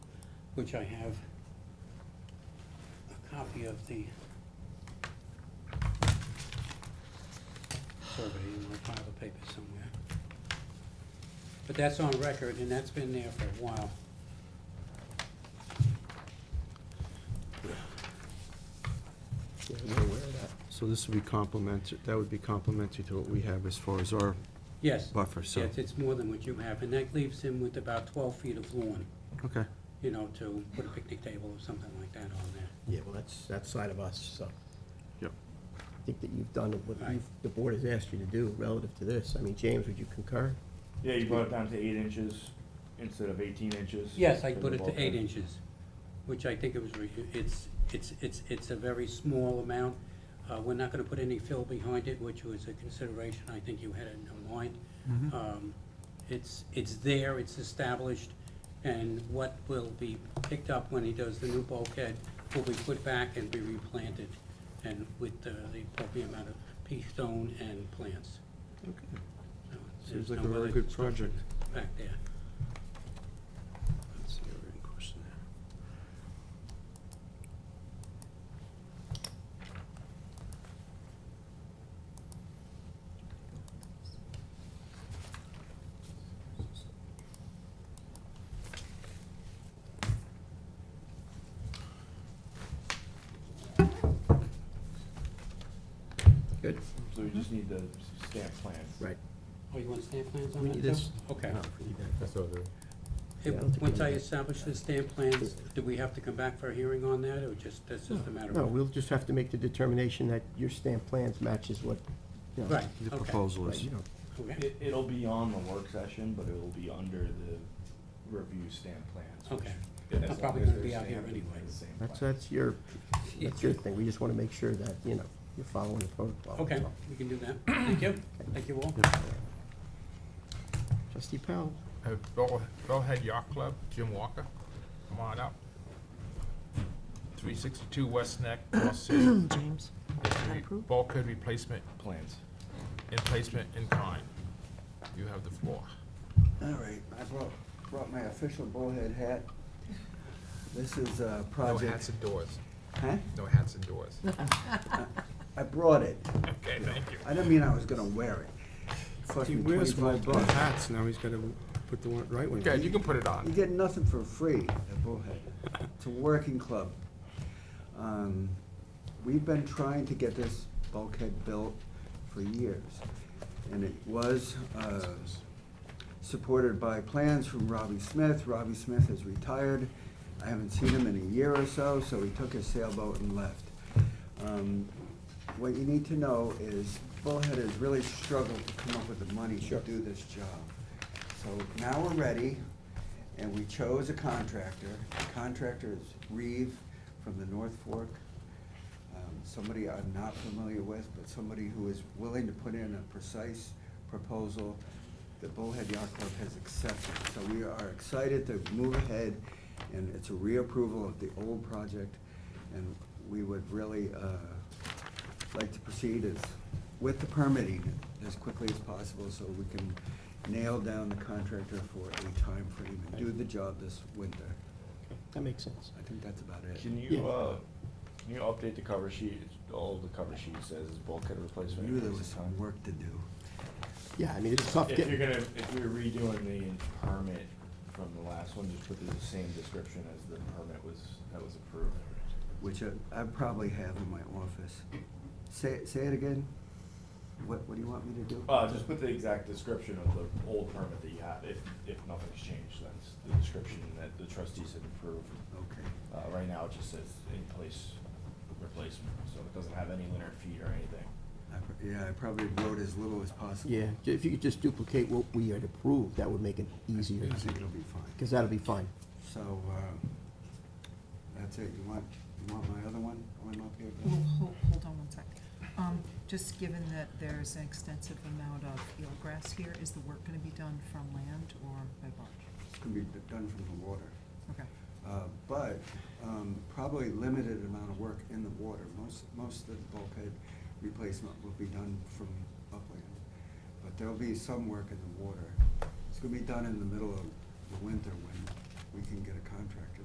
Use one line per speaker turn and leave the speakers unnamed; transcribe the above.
which I have a copy of the survey in my pile of papers somewhere. But that's on record, and that's been there for a while.
Yeah, I'm aware of that. So this would be complementary, that would be complementary to what we have as far as our
Yes,
buffer, so,
yes, it's more than what you have, and that leaves him with about twelve feet of lawn,
okay.
you know, to put a picnic table or something like that on there.
Yeah, well, that's, that's side of us, so.
Yep.
I think that you've done what
Right.
you've, the board has asked you to do relative to this. I mean, James, would you concur?
Yeah, you brought it down to eight inches instead of eighteen inches.
Yes, I
for
put it
the
to eight
bulkhead.
inches, which I think it was, re- it's, it's, it's, it's a very small amount. Uh, we're not gonna put any fill behind it, which was a consideration, I think you had it in mind.
Mm-hmm.
Um, it's, it's there, it's established, and what will be picked up when he does the new bulkhead will be put back and be replanted, and with uh, the appropriate amount of pea stone and plants.
Okay.
So
Seems
there's
like
no
a very
other
good
construction
project.
Back there.
Let's see, we're in question there.
Good.
So we just need the stamp plans.
Right.
Oh, you want stamp plans on
We
that,
need
too?
this.
Okay.
No, we need that.
If-
Yeah, I don't think we
Once I
need-
establish the stamp plans, do we have to come back for a hearing on that, or just, that's just a matter
No,
of?
we'll just have to make the determination that your stamp plans matches what, you know.
Right,
The
okay,
proposal
right,
is,
you know,
okay,
It, it'll be on the work session, but it'll be under the review stamp plans. which-
Okay.
as
I'm
long
probably
as
gonna
they're
be out here
stamped, it's
anyway.
the same
that's,
plan.
that's your, that's your thing. We just want to make sure that, you know, you're following the protocol. that's
okay,
all.
we can do that, thank you, thank you all.
Trustee Powell,
Uh, Bill- Billhead Yacht Club, Jim Walker, come on up. Three sixty-two West Neck, North City.
James,
Bulkhead replacement
Plans.
and placement in kind. You have the floor.
All right, I brought, brought my official bullhead hat. This is uh, a project.
and doors.
Huh?
No hats and doors.
I brought it.
Okay, thank you.
I didn't mean I was gonna wear it. Cost
he
me
wears
twenty-five
multiple
bucks.
hats, now he's gotta put the one, right one.
Okay, you can put it
You
on.
get nothing for free at Bullhead. It's a working club. Um, We've been trying to get this bulkhead built for years. And it was uh, supported by plans from Robbie Smith. Robbie Smith is retired. I haven't seen him in a year or so, so he took his sailboat and left. Um, What you need to know is Bullhead has really struggled to come up with the money to do this job. So now we're ready, and we chose a contractor. The contractor is Reeve from the North Fork. Um, Somebody I'm not familiar with, but somebody who is willing to put in a precise proposal that Bullhead Yacht Club has accepted. So we are excited to move ahead, and it's a reapproval of the old project, and we would really uh, like to proceed is with the permitting as quickly as possible so we can nail down the contractor for a time frame and do the job this winter.
that makes sense.
I think that's about it.
Can you, uh, can you update the cover sheet? It's- All the cover sheet says is bulkhead
I
replacement.
knew there
increase
was
in
some
kind.
work to do.
Yeah, I mean, it's tough
If you're
getting,
gonna, if we're redoing the permit from the last one, just put the same description as the permit was, that was approved.
which I- I probably have in my office. Say, say it again? What, what do you want me to do?
Uh, just put the exact description of the old permit that you have, if, if nothing's changed, that's the description that the trustees had approved.
Okay,
Uh, right now, it just says in place replacement, so it doesn't have any linear feet or anything.
I pr- yeah, I probably wrote as little as possible.
yeah, if you could just duplicate what we had approved, that would make it easier,
I think it'll be fine.
because that'll be fine.
So, uh, that's it, you want, you want my other one, one up here?
Well, hold, hold on one sec. Um, just given that there's an extensive amount of eelgrass here, is the work gonna be done from land or by barge?
It's gonna be d- done from the water.
Okay,
Uh, but um, probably limited amount of work in the water. Most, most of the bulkhead replacement will be done from upland. But there'll be some work in the water. It's gonna be done in the middle of the winter when we can get a contractor